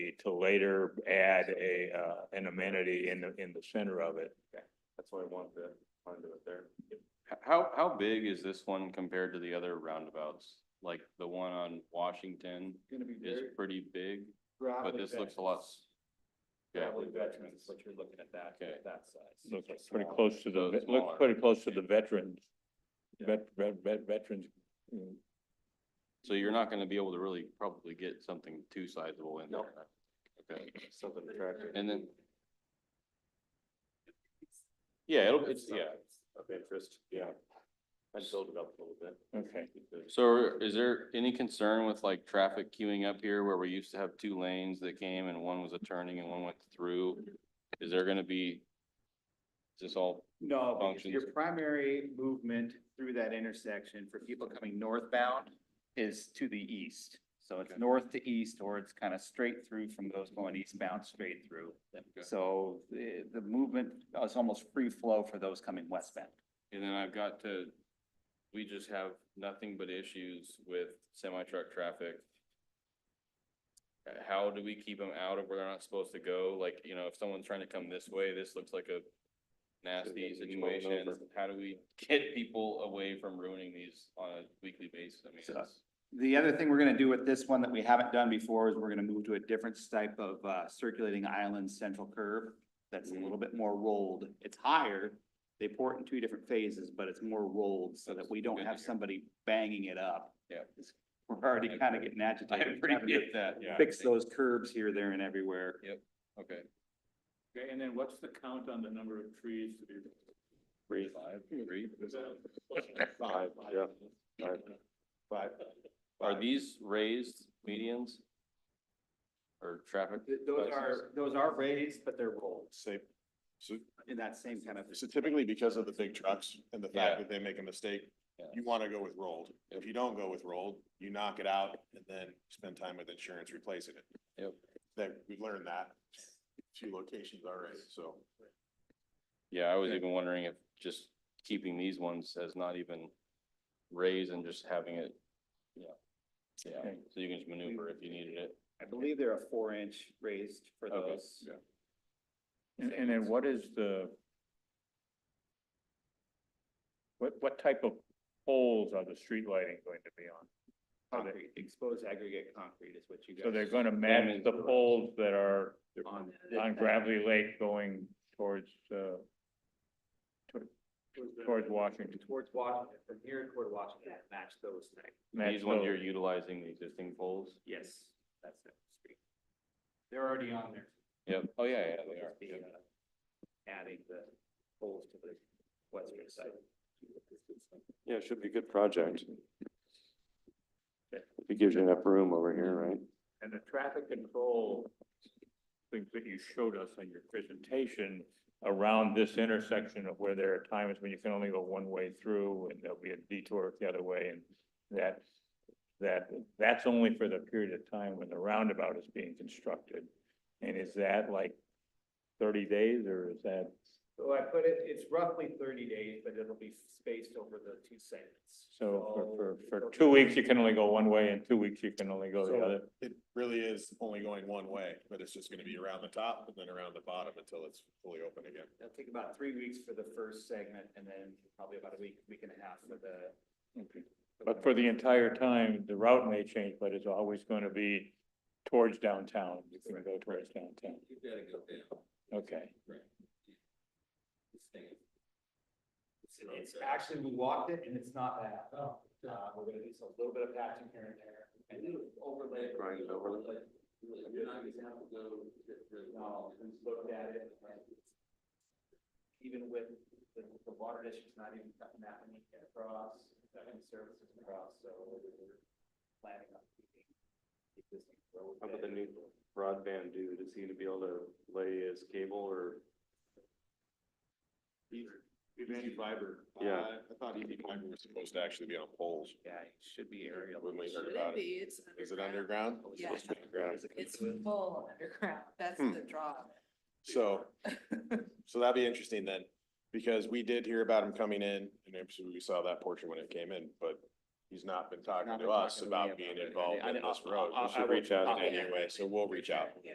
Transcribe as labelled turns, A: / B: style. A: property to later add a, uh, an amenity in the, in the center of it. That's why I wanted to, wanted to do it there.
B: H- How, how big is this one compared to the other roundabouts? Like the one on Washington
C: Gonna be
B: is
C: very.
B: pretty big, but
C: gravelly
B: this
C: bed.
B: looks a lot. s- Yeah,
C: Gravelly veterans, is what you're looking at that,
B: Okay.
C: that size.
A: Looks like pretty close to the,
B: So
A: it looks
B: smaller.
A: pretty close to the veterans.
C: Yeah.
A: Vet, vet, vet- veterans. mm,
B: so you're not gonna be able to really probably get something too sizable in
C: No.
B: there. Okay,
C: Something
B: and then. Yeah, it'll, it's, yeah,
C: Of interest, yeah. I'd build it up a little bit.
A: Okay.
B: so is there any concern with like traffic queuing up here where we used to have two lanes that came and one was a turning and one went through? Is there gonna be? Is this all
D: No, because your
B: functions.
D: primary movement through that intersection for people coming northbound is to the east. So it's
B: Okay.
D: north to east, or it's kind of straight through from those going eastbound, straight through.
B: Okay.
D: So the, the movement is almost free flow for those coming westbound.
B: And then I've got to, we just have nothing but issues with semi truck traffic. Uh, How do we keep them out of where they're not supposed to go? Like, you know, if someone's trying to come this way, this looks like a nasty
C: Should've been swollen
B: situation.
C: over.
B: How do we get people away from ruining these on a weekly basis? I mean,
D: So-
B: it's,
D: The other thing we're gonna do with this one that we haven't done before is we're gonna move to a different type of uh circulating island central curve. That's a little bit more rolled. It's higher. They pour it in two different phases, but it's more rolled so that we don't
B: Good to
D: have
B: hear.
D: somebody banging it up.
B: Yeah.
D: We're already kind of getting
B: I
D: agitated. having to
B: appreciate that, yeah.
D: Fix those curves here, there and everywhere.
B: Okay.
C: Okay, and then what's the count on the number of trees to be?
B: Three, five, three.
C: Five, yeah, five. Five.
B: Are these raised medians? Or traffic?
D: Th- Those
B: devices?
D: are, those are raised, but they're rolled
E: Say, so,
D: in that same kind of.
E: so typically because of the big trucks and the
B: Yeah.
E: fact that they make a mistake,
B: Yeah.
E: you wanna go with rolled. If you don't go with rolled, you knock it out and then spend time with insurance replacing it.
B: Yep.
E: That, we've learned that two locations already, so.
B: Yeah, I was even wondering if just keeping these ones as not even raised and just having it, yeah. Yeah, so you can just maneuver if you needed it.
D: I believe they're a four inch raised for
B: Okay,
D: those.
B: yeah.
A: And, and then what is the? What, what type of poles are the street lighting going to be on?
D: Concrete, exposed aggregate concrete is what you guys.
A: So they're gonna match the poles that are
D: On.
A: on Gravely Lake going towards, uh, towards Washington.
D: Towards Washington, from here toward Washington, match those things.
A: match
B: These ones
A: those.
B: you're utilizing the existing poles?
D: Yes, that's it. They're already on there.
B: Yep. Oh, yeah, yeah,
D: We'll
B: they are.
D: just be, uh, Adding the poles to the western side.
C: Yeah, it should be a good project. It gives you enough room over here, right?
A: And the traffic control things that you showed us on your presentation around this intersection of where there are times when you can only go one way through and there'll be a detour the other way and that, that, that's only for the period of time when the roundabout is being constructed. And is that like thirty days or is that,
D: So I put it, it's roughly thirty days, but it'll be spaced over the two segments.
A: so for, for, for two weeks, you can only go one way and two weeks, you can only go the
E: So-
A: other?
E: It really is only going one way, but it's just gonna be around the top and then around the bottom until it's fully open again.
D: It'll take about three weeks for the first segment and then probably about a week, week and a half for the.
A: But for the entire time, the route may change, but it's always going to be towards downtown. You can go towards downtown.
C: You gotta go down.
A: Okay.
D: It's actually, we walked it and it's not bad. Uh, we're gonna do a little bit of patching here and there. And then overlay.
C: Grind it overlay.
D: You're not gonna have to go. No, uh, we looked at it. and Even with the, the water district's not even cutting that many across, that many services across, so we're planning on keeping. existing road
C: How about the
D: bed.
C: new broadband dude, is he gonna be able to lay his cable or?
E: EV fiber.
C: Yeah.
E: Uh, I thought EV fiber was supposed to actually be on poles.
D: Yeah, it should be aerial.
E: When we heard
F: Should
E: about it.
F: it be? It's underground.
E: Is it underground?
F: Yeah.
E: It's underground.
F: It's full underground. That's
E: Hmm.
F: the draw. of it.
E: So, so that'd be interesting then, because we did hear about him coming in, and obviously we saw that portion when it came in, but he's not been talking
D: Not
E: to
D: been
E: us
D: talking to me
E: about
D: about
E: being
D: it.
E: involved
D: I-
E: in
D: I-
E: this
D: I- I-
E: road. We
D: I
E: should
D: will-
E: reach out
D: I'll-
E: anyway, so we'll reach out.